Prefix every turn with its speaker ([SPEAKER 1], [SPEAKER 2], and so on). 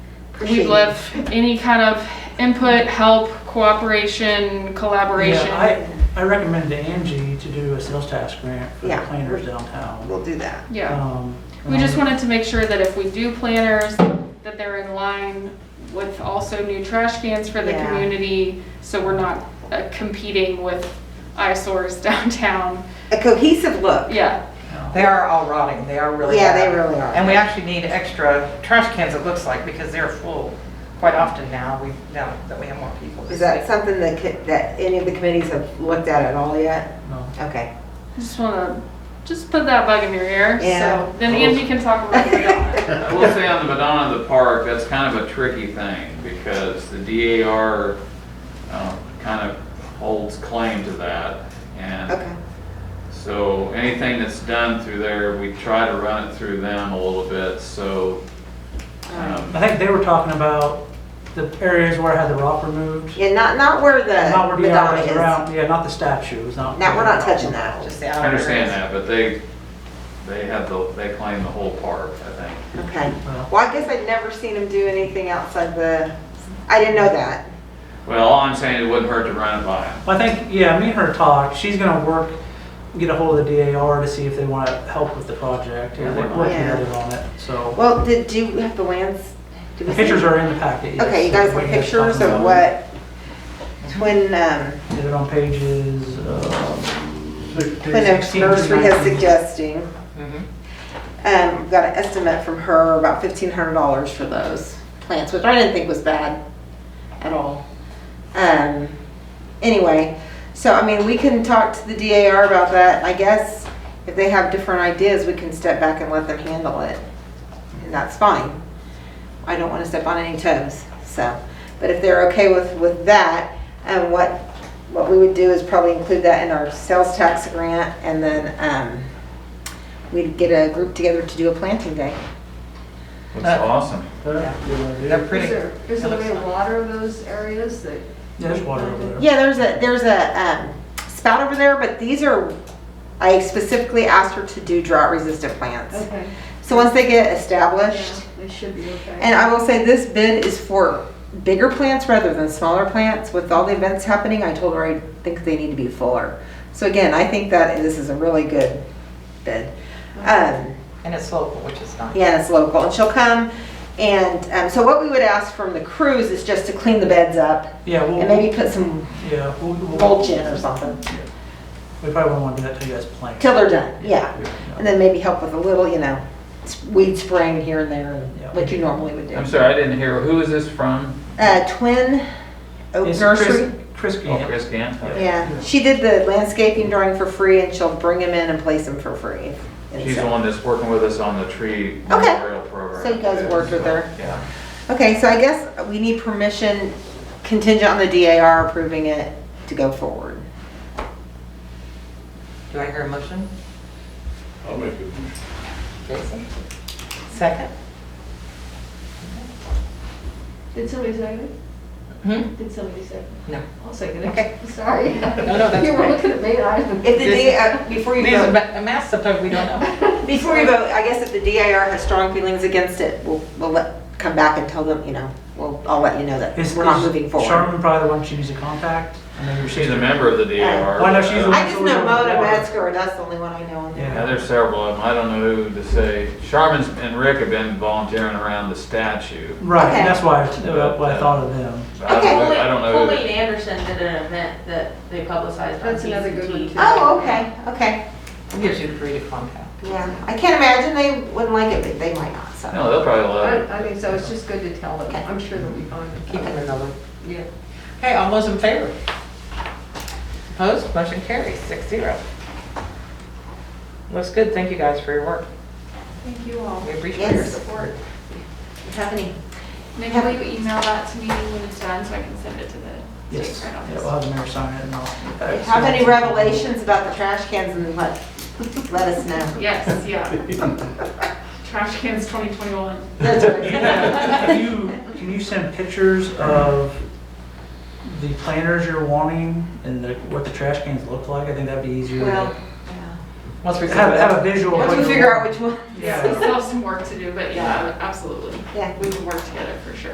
[SPEAKER 1] We'd love any kind of input, help, cooperation, collaboration.
[SPEAKER 2] Yeah, I, I recommend to Angie to do a sales tax grant for the
[SPEAKER 3] Yeah.
[SPEAKER 2] planners downtown.
[SPEAKER 3] We'll do that.
[SPEAKER 1] Yeah.
[SPEAKER 2] Um,
[SPEAKER 1] We just wanted to make sure that if we do planners, that they're in line with also new trash cans for the
[SPEAKER 3] Yeah.
[SPEAKER 1] community, so we're not uh, competing with eyesores downtown.
[SPEAKER 3] A cohesive look.
[SPEAKER 1] Yeah,
[SPEAKER 4] They are all rotting, they are really
[SPEAKER 3] Yeah,
[SPEAKER 4] bad.
[SPEAKER 3] they really are.
[SPEAKER 4] And we actually need extra trash cans, it looks like, because they're full quite often now, we, now that we have more people.
[SPEAKER 3] Is that something that, could- that any of the committees have looked at at all yet?
[SPEAKER 2] No.
[SPEAKER 3] Okay.
[SPEAKER 1] just wanna, just put that bug in your ear,
[SPEAKER 3] Yeah.
[SPEAKER 1] so then Angie can talk about it.
[SPEAKER 5] I will say on the Madonna of the Park, that's kind of a tricky thing because the DAR um, kind of holds claim to that.
[SPEAKER 3] Okay.
[SPEAKER 5] And so anything that's done through there, we try to run it through them a little bit, so. um,
[SPEAKER 2] I think they were talking about the areas where I had the rock removed.
[SPEAKER 3] Yeah, not, not where the
[SPEAKER 2] Not where DR
[SPEAKER 3] Madonna
[SPEAKER 2] is
[SPEAKER 3] is.
[SPEAKER 2] around, yeah, not the statues, not.
[SPEAKER 3] Now, we're not touching that.
[SPEAKER 4] Just the outer
[SPEAKER 5] I
[SPEAKER 4] areas.
[SPEAKER 5] understand that, but they, they have the, they claim the whole park, I think.
[SPEAKER 3] Okay.
[SPEAKER 2] Well-
[SPEAKER 3] Well, I guess I'd never seen them do anything outside the, I didn't know that.
[SPEAKER 5] Well, all I'm saying, it wouldn't hurt to run it by them.
[SPEAKER 2] I think, yeah, me and her talked, she's gonna work, get a hold of the DAR to see if they wanna help with the project,
[SPEAKER 5] Yeah,
[SPEAKER 2] and
[SPEAKER 5] they
[SPEAKER 2] we're
[SPEAKER 5] might.
[SPEAKER 2] working
[SPEAKER 3] Yeah.
[SPEAKER 2] together on it, so.
[SPEAKER 3] Well, did, do you have the lands? Do we
[SPEAKER 2] The
[SPEAKER 3] see-
[SPEAKER 2] pictures are in the packet, yes.
[SPEAKER 3] Okay, you guys
[SPEAKER 2] We
[SPEAKER 3] have
[SPEAKER 2] can just
[SPEAKER 3] pictures
[SPEAKER 2] talk
[SPEAKER 3] of
[SPEAKER 2] about
[SPEAKER 3] what, Twin, um,
[SPEAKER 2] it. Did it on pages, uh,
[SPEAKER 3] Twin Oaks
[SPEAKER 2] 16 to
[SPEAKER 3] Nursery is
[SPEAKER 2] 19.
[SPEAKER 3] suggesting.
[SPEAKER 4] Mhm.
[SPEAKER 3] Um, got an estimate from her, about fifteen hundred dollars for those plants, which I didn't think was bad at all. Um, anyway, so I mean, we can talk to the DAR about that. I guess if they have different ideas, we can step back and let them handle it. And that's fine. I don't wanna step on any toes, so. But if they're okay with, with that, and what, what we would do is probably include that in our sales tax grant and then, um, we'd get a group together to do a planting day.
[SPEAKER 5] That's awesome.
[SPEAKER 2] There, good idea.
[SPEAKER 4] They're pretty.
[SPEAKER 6] Is there, is there a way to water those areas that?
[SPEAKER 2] Yeah, There's water over there.
[SPEAKER 3] Yeah, there's a, there's a um, spout over there, but these are, I specifically asked her to do drought resistant plants.
[SPEAKER 6] Okay.
[SPEAKER 3] So once they get
[SPEAKER 6] Yeah,
[SPEAKER 3] established,
[SPEAKER 6] They should be okay.
[SPEAKER 3] and I will say this bid is for bigger plants rather than smaller plants. With all the events happening, I told her I think they need to be fuller. So again, I think that this is a really good bid. Um,
[SPEAKER 4] And it's local, which is nice.
[SPEAKER 3] yeah, it's local, and she'll come, and, um, so what we would ask from the crews is just to clean the beds up,
[SPEAKER 2] Yeah, we'll,
[SPEAKER 3] and maybe put some
[SPEAKER 2] yeah, we'll, we'll,
[SPEAKER 3] mulch in or something.
[SPEAKER 2] we probably won't want to do that till you guys plant.
[SPEAKER 3] Till they're done, yeah.
[SPEAKER 2] Yeah.
[SPEAKER 3] And then maybe help with a little, you know, s- weed spraying here and there, and
[SPEAKER 2] Yeah.
[SPEAKER 3] what you normally would do.
[SPEAKER 5] I'm sorry, I didn't hear, who is this from?
[SPEAKER 3] Uh, Twin Oak
[SPEAKER 2] It's
[SPEAKER 3] Nursery.
[SPEAKER 2] Chris, Chris
[SPEAKER 5] Oh,
[SPEAKER 2] Gann.
[SPEAKER 5] Chris Gant? Okay.
[SPEAKER 3] Yeah, she did the landscaping drawing for free, and she'll bring them in and place them for free. And
[SPEAKER 5] She's the
[SPEAKER 3] so-
[SPEAKER 5] one that's working with us on the tree
[SPEAKER 3] Okay.
[SPEAKER 5] memorial program.
[SPEAKER 3] So you guys
[SPEAKER 5] too,
[SPEAKER 3] worked with
[SPEAKER 5] so,
[SPEAKER 3] her.
[SPEAKER 5] Yeah.
[SPEAKER 3] Okay, so I guess we need permission contingent on the DAR approving it to go forward.
[SPEAKER 4] Do I hear a motion?
[SPEAKER 7] I'll make it.
[SPEAKER 4] Jason? Second?
[SPEAKER 6] Did somebody second
[SPEAKER 4] Hmm?
[SPEAKER 6] it? Did somebody second
[SPEAKER 4] No.
[SPEAKER 6] it? I'll second
[SPEAKER 4] Okay.
[SPEAKER 6] it. Sorry.
[SPEAKER 4] No, no, that's
[SPEAKER 6] You were
[SPEAKER 4] fine.
[SPEAKER 6] looking at me, and I.
[SPEAKER 3] If the DAR, before you
[SPEAKER 4] These are
[SPEAKER 3] vote,
[SPEAKER 4] ma- a mess, sometimes we don't know.
[SPEAKER 3] before you vote, I guess if the DAR has strong feelings against it, we'll, we'll let, come back and tell them, you know, we'll, I'll let you know that
[SPEAKER 2] Is-
[SPEAKER 3] we're not
[SPEAKER 2] is
[SPEAKER 3] moving forward.
[SPEAKER 2] Charmin probably the one she needs to contact? I know your
[SPEAKER 5] She's a
[SPEAKER 2] sister-
[SPEAKER 5] member of the DAR.
[SPEAKER 2] Why not? She's the-
[SPEAKER 3] I just know Mona Metzger, that's the only one I know on there.
[SPEAKER 5] Yeah, there's several of them. I don't know who to say. Charmin's and Rick have been volunteering around the statue.
[SPEAKER 2] Right,
[SPEAKER 3] Okay.
[SPEAKER 2] and that's why, I- why I thought of them.
[SPEAKER 5] So I don't know- I don't know. who-
[SPEAKER 8] Colleen Anderson did an event that they publicized on
[SPEAKER 6] That's another good one,
[SPEAKER 8] TCT.
[SPEAKER 6] too.
[SPEAKER 3] Oh, okay, okay,
[SPEAKER 4] It gives you free to contact.
[SPEAKER 3] yeah. I can't imagine they wouldn't like it, but they might not, so.
[SPEAKER 5] No, they'll probably love
[SPEAKER 6] I
[SPEAKER 5] it.
[SPEAKER 6] I think so, it's just good to tell them, I'm sure they'll be fine.
[SPEAKER 4] Keep them in the loop.
[SPEAKER 6] Yeah.
[SPEAKER 4] Okay, all those in favor? Opposed, motion carries, six zero. Looks good, thank you guys for your work,
[SPEAKER 6] Thank you all.
[SPEAKER 4] we appreciate your
[SPEAKER 3] Yes.
[SPEAKER 4] support.
[SPEAKER 3] It's happening.
[SPEAKER 9] Maybe will you email that to me when it's done so I can send it to the
[SPEAKER 2] Yes,
[SPEAKER 9] state right
[SPEAKER 2] yeah,
[SPEAKER 9] office?
[SPEAKER 2] we'll have the mayor sign it and I'll.
[SPEAKER 3] Have any revelations about the trash cans and let, let us know.
[SPEAKER 9] Yes, yeah. Trash cans 2021.
[SPEAKER 3] That's
[SPEAKER 2] Can you, can you send pictures of the planters you're wanting and the, what the trash cans look like? I think that'd be easier. to-
[SPEAKER 3] Well,
[SPEAKER 4] Once we
[SPEAKER 2] Have, have a
[SPEAKER 4] have
[SPEAKER 2] visual.
[SPEAKER 3] once we figure out which one,
[SPEAKER 2] Yeah.
[SPEAKER 9] We still have some work to do, but yeah, absolutely.
[SPEAKER 3] yeah.
[SPEAKER 9] We will work together for sure.